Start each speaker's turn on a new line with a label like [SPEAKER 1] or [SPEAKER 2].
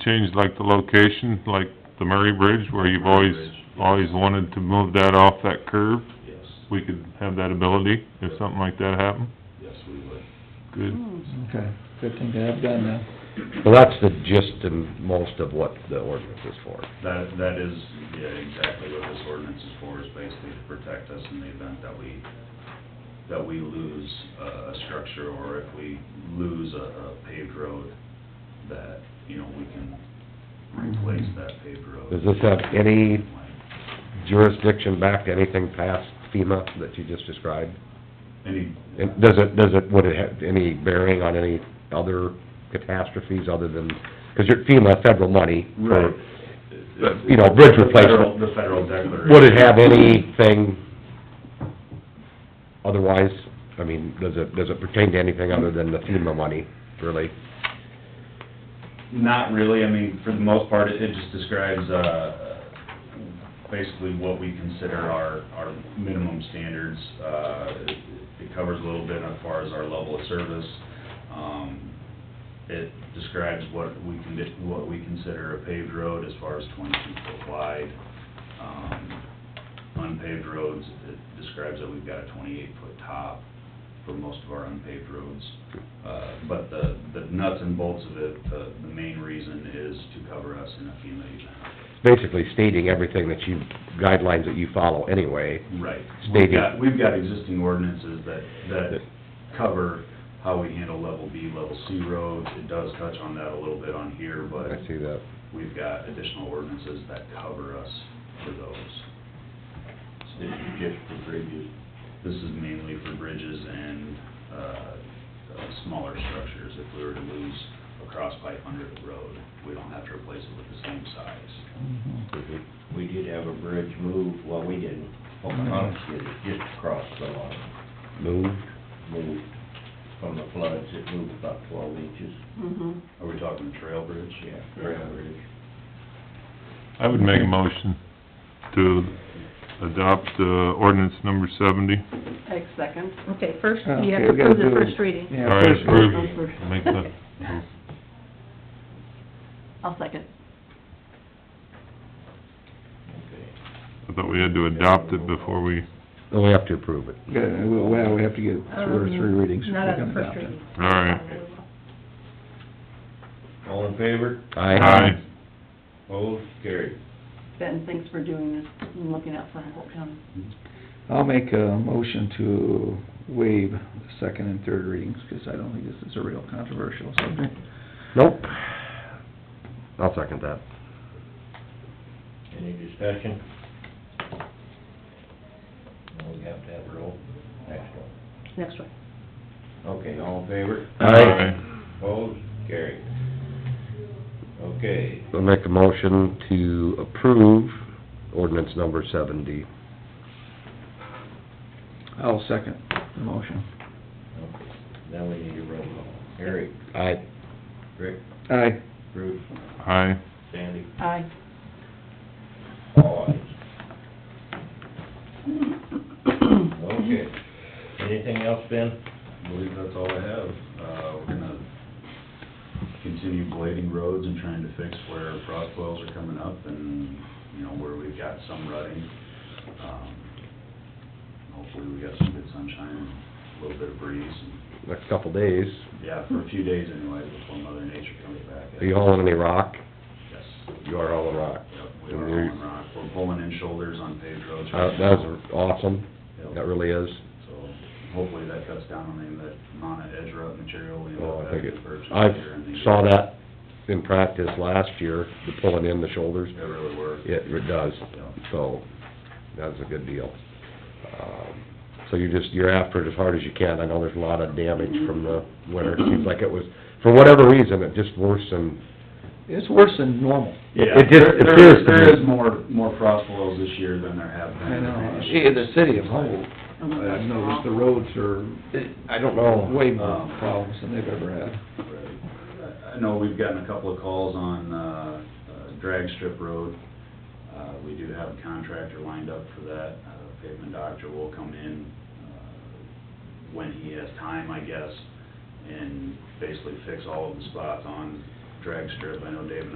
[SPEAKER 1] change like the location, like the Murray Bridge, where you've always, always wanted to move that off that curve?
[SPEAKER 2] Yes,
[SPEAKER 1] We could have that ability if something like that happened?
[SPEAKER 2] yes, we would.
[SPEAKER 1] Good.
[SPEAKER 3] Okay, good thing to have done now.
[SPEAKER 4] Well, that's the gist and most of what the ordinance is for.
[SPEAKER 2] That, that is, yeah, exactly what this ordinance is for, is basically to protect us in the event that we, that we lose a, a structure or if we lose a, a paved road, that, you know, we can replace that paved road.
[SPEAKER 4] Does this have any jurisdiction back to anything past FEMA that you just described?
[SPEAKER 2] Any,
[SPEAKER 4] And does it, does it, would it have any bearing on any other catastrophes other than, because you're FEMA, federal money. for-
[SPEAKER 2] right.
[SPEAKER 4] but, you know, bridge
[SPEAKER 2] The federal-
[SPEAKER 4] replacement.
[SPEAKER 2] The federal declaration.
[SPEAKER 4] Would it have anything otherwise? I mean, does it, does it pertain to anything other than the FEMA money, really?
[SPEAKER 2] Not really, I mean, for the most part, it it just describes, uh, basically what we consider our, our minimum standards. Uh, it- it covers a little bit as far as our level of service. Um, it describes what we can, do- what we consider a paved road as far as twenty-two foot wide. Um, unpaved roads, it describes that we've got a twenty-eight foot top for most of our unpaved roads. Uh, But the, the nuts and bolts of it, the, the main reason is to cover us in a FEMA event.
[SPEAKER 4] Basically stating everything that you, guidelines that you follow anyway.
[SPEAKER 2] Right. We've
[SPEAKER 4] Stated.
[SPEAKER 2] got, we've got existing ordinances that, that cover how we handle level B, level C roads. It does touch on that a little bit on here, but
[SPEAKER 4] I see that.
[SPEAKER 2] we've got additional ordinances that cover us for those. So if you get for bridges, this is mainly for bridges and, uh, uh, smaller structures. If we were to lose a cross pipe under the road, we don't have to replace it with the same size.
[SPEAKER 5] Mm-hmm. We did have a bridge moved, well, we didn't, Pocahontas did it, just across the line,
[SPEAKER 4] Moved?
[SPEAKER 5] moved from the floods, it moved about twelve inches,
[SPEAKER 6] Mm-hmm.
[SPEAKER 2] Are we talking trail bridge?
[SPEAKER 5] yeah, gravel bridge.
[SPEAKER 1] I would make a motion to adopt, uh, ordinance number seventy.
[SPEAKER 6] Take second. Okay, first, you have
[SPEAKER 3] Okay,
[SPEAKER 6] to
[SPEAKER 3] we gotta
[SPEAKER 6] approve the
[SPEAKER 3] do-
[SPEAKER 6] first reading.
[SPEAKER 1] All
[SPEAKER 3] Yeah,
[SPEAKER 1] right,
[SPEAKER 3] first-
[SPEAKER 1] approved.
[SPEAKER 6] Oh, first.
[SPEAKER 1] I'll Make that,
[SPEAKER 6] I'll second.
[SPEAKER 1] I thought we had to adopt it before we,
[SPEAKER 4] No, we have to approve it.
[SPEAKER 3] Good, well, well, we have to get two or
[SPEAKER 6] Um,
[SPEAKER 3] three readings.
[SPEAKER 6] Not
[SPEAKER 3] before
[SPEAKER 6] on
[SPEAKER 3] we
[SPEAKER 6] the
[SPEAKER 3] come
[SPEAKER 6] first
[SPEAKER 3] down.
[SPEAKER 6] reading.
[SPEAKER 1] all right.
[SPEAKER 5] All in favor?
[SPEAKER 4] Aye.
[SPEAKER 5] Opposed, carried.
[SPEAKER 6] Ben, thanks for doing this, and looking out for Humboldt County.
[SPEAKER 3] I'll make a motion to waive the second and third readings, because I don't think this is a real controversial subject.
[SPEAKER 4] Nope. I'll second that.
[SPEAKER 5] Any discussion? No, we have to have a roll, next one.
[SPEAKER 6] Next one.
[SPEAKER 5] Okay, all in favor? Opposed, carried. Okay,
[SPEAKER 4] I'll make a motion to approve ordinance number seventy.
[SPEAKER 3] I'll second the motion.
[SPEAKER 5] okay, now we need a roll call. Harry,
[SPEAKER 4] Aye.
[SPEAKER 5] Rick,
[SPEAKER 3] Aye.
[SPEAKER 5] Bruce,
[SPEAKER 1] Aye.
[SPEAKER 5] Sandy,
[SPEAKER 6] Aye.
[SPEAKER 5] all ayes. Okay. Anything else, Ben?
[SPEAKER 2] I believe that's all I have. Uh, we're gonna continue blading roads and trying to fix where frost boils are coming up and, you know, where we've got some rutting. Um, Hopefully we got some good sunshine, a little bit of breeze, and,
[SPEAKER 4] Next couple days.
[SPEAKER 2] yeah, for a few days anyway, before Mother Nature comes back.
[SPEAKER 4] Are you hauling any rock?
[SPEAKER 2] Yes.
[SPEAKER 4] You are hauling rock.
[SPEAKER 2] Yep, we are hauling rock. We're pulling in shoulders on paved roads.
[SPEAKER 4] Uh,
[SPEAKER 2] right
[SPEAKER 4] that
[SPEAKER 2] now.
[SPEAKER 4] was awesome.
[SPEAKER 2] Yep.
[SPEAKER 4] That really is.
[SPEAKER 2] So hopefully that cuts down on any of that amount of edge rut material we end
[SPEAKER 4] Oh,
[SPEAKER 2] up
[SPEAKER 4] I think
[SPEAKER 2] having
[SPEAKER 4] it,
[SPEAKER 2] to purchase.
[SPEAKER 4] I
[SPEAKER 2] here in the year.
[SPEAKER 4] saw that in practice last year, the pulling in the shoulders.
[SPEAKER 2] It really worked.
[SPEAKER 4] It, it does.
[SPEAKER 2] Yeah.
[SPEAKER 4] So, that's a good deal. Um, So you're just, you're after it as hard as you can. I know there's a lot of damage from the winter. It Seems like it was, for whatever reason, it just worsened.
[SPEAKER 3] It's worse than normal.
[SPEAKER 2] Yeah,
[SPEAKER 4] It just
[SPEAKER 2] there- there
[SPEAKER 4] appears
[SPEAKER 2] is-
[SPEAKER 4] to
[SPEAKER 2] There
[SPEAKER 4] be.
[SPEAKER 2] is more, more frost boils this year than there have been.
[SPEAKER 3] I
[SPEAKER 2] in
[SPEAKER 3] know,
[SPEAKER 2] previous
[SPEAKER 3] Yeah,
[SPEAKER 2] years.
[SPEAKER 3] the city of Humboldt, I've noticed the roads are Uh,
[SPEAKER 4] I don't know.
[SPEAKER 3] way more problems than they've ever had.
[SPEAKER 2] Right. I know we've gotten a couple of calls on, uh, uh, drag strip road. Uh, we do have a contractor lined up for that. Uh, pavement doctor will come in, uh, when he has time, I guess, and basically fix all of the spots on drag strip. I know Dave and